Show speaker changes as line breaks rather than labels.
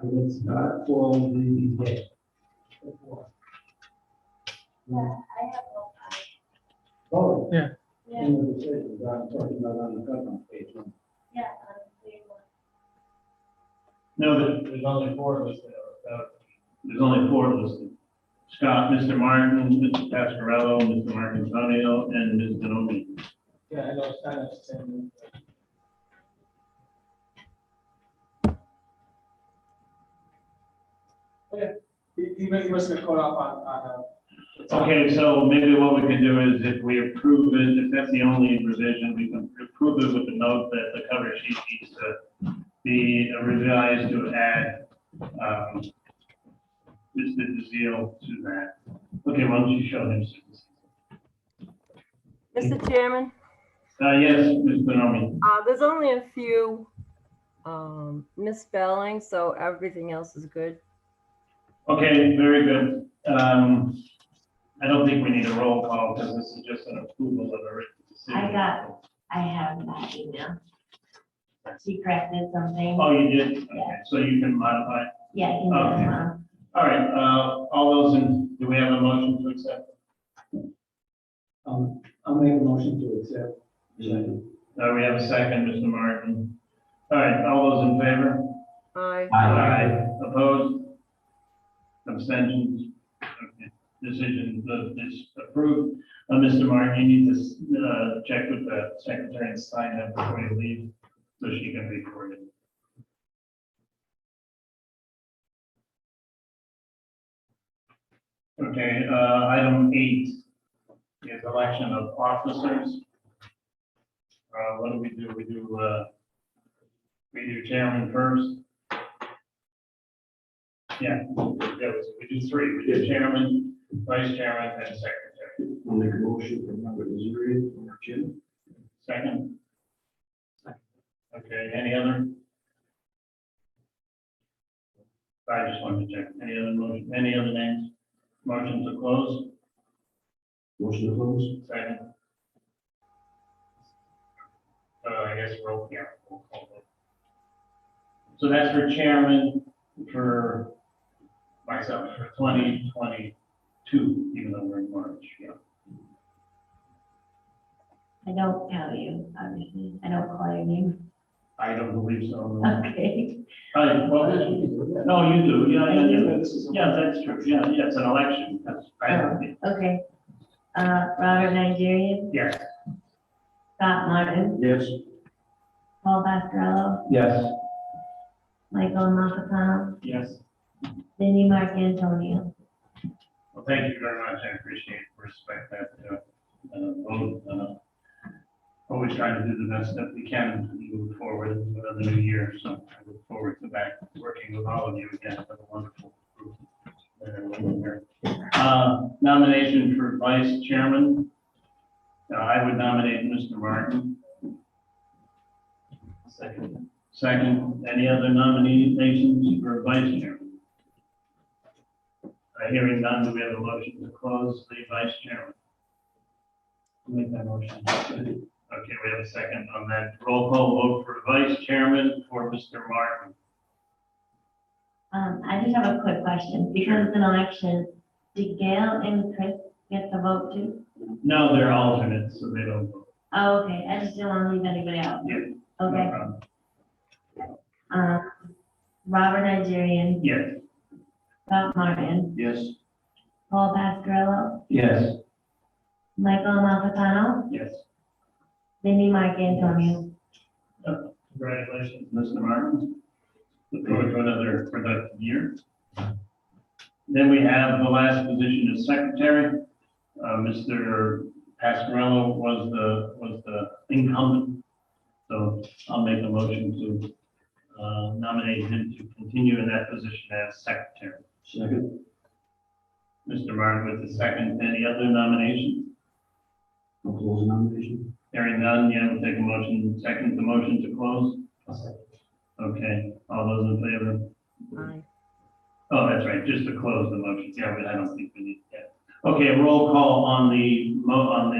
And it's not for the day.
Yeah, I have no time.
Oh.
Yeah.
Yeah.
In the decisions, I'm talking about on the government page.
Yeah, on Cleveland.
No, there- there's only four of us that are, uh, there's only four of us. Scott, Mr. Martin, Mr. Pascarello, Mr. Martin Antonio, and Ms. Denomey.
Yeah, I know, it's kind of the same. Okay, he, he must- he must have caught up on, on, uh.
Okay, so maybe what we can do is if we approve it, if that's the only revision, we can approve it with the note that the cover sheet needs to be revised to add, um, Mr. DeZiel to that. Okay, why don't you show him? Susan?
Mr. Chairman,
Uh, yes, Ms. Denomey.
uh, there's only a few um, misspellings, so everything else is good.
Okay, very good. Um, I don't think we need a roll call because this is just an approval of a written decision.
I got I have that email. She corrected something.
Oh, you did? Okay, so you can modify. it.
Yeah, email,
Okay.
uh,
All right, uh, all those in, do we have a motion to accept?
Um, I'll make a motion to accept.
Uh, we have a second, Mr. Martin. All right, all those in favor?
Aye.
Opposed? Abstentions? Okay. Decision, the, this approved. Uh, Mr. Martin, you need to, uh, check with the secretary and sign that before you leave, so she can record it. Okay, uh, item eight is election of officers. Uh, what do we do? We do, uh, we do chairman first. Yeah, yeah, we do three, we do chairman, vice chairman, and secretary.
I'll make a motion for number zero, Jim.
Second? Okay, any other? I just wanted to check, any other motion, any other names? Motion to close,
Motion to close.
second? Uh, I guess we'll, yeah. we'll call it. So that's for chairman, for myself, for twenty twenty-two, even though we're in March, yeah.
I don't tell you, obviously. I don't call your name.
I don't believe so.
Okay.
Uh, well, this- no, you do, yeah, yeah, yeah.
This is a-
Yeah, that's true, yeah, yeah, it's an election, that's, I,
Okay. Uh, Robert Nigerian,
yes.
Scott Martin,
Yes.
Paul Bascarello,
Yes.
Michael Nakapano,
Yes.
Cindy Mark Antonio.
Well, thank you very much, I appreciate, and respect that, uh, uh, vote, uh, always trying to do the best that we can to move forward for the new year, so I look forward to back working with all of you again, for the wonderful group. that are working here. Uh, nomination for vice chairman, Uh, I would nominate Mr. Martin. Second. Second, any other nominations for vice chairman? Uh, Hearing none, do we have a motion to close the vice chairman? Make that motion. Okay, we have a second on that. Roll call vote for vice chairman for Mr. Martin.
Um, I just have a quick question. Because it's an election, did Gail and Chris get the vote too?
No, they're alternates, so they don't vote.
Oh, okay. I just didn't want to leave anybody out.
Yeah. no
Okay.
problem.
Uh, Robert Nigerian,
Yes.
Scott Martin,
Yes.
Paul Bascarello,
Yes.
Michael Malfatano,
Yes.
Cindy Mark Antonio.
Congratulations, Mr. Martin. Look forward to another productive year. Then we have the last position as secretary. Uh, Mr. Pascarello was the, was the incumbent. So I'll make a motion to uh, nominate him to continue in that position as secretary.
Second.
Mr. Martin with the second. Any other nominations?
I'll close the nomination.
Hearing none, yeah, we'll take a motion, second the motion to close. Okay, all those in favor?
Aye.
Oh, that's right, just to close the motion, yeah, but I don't think we need that. Okay, roll call on the, mo on the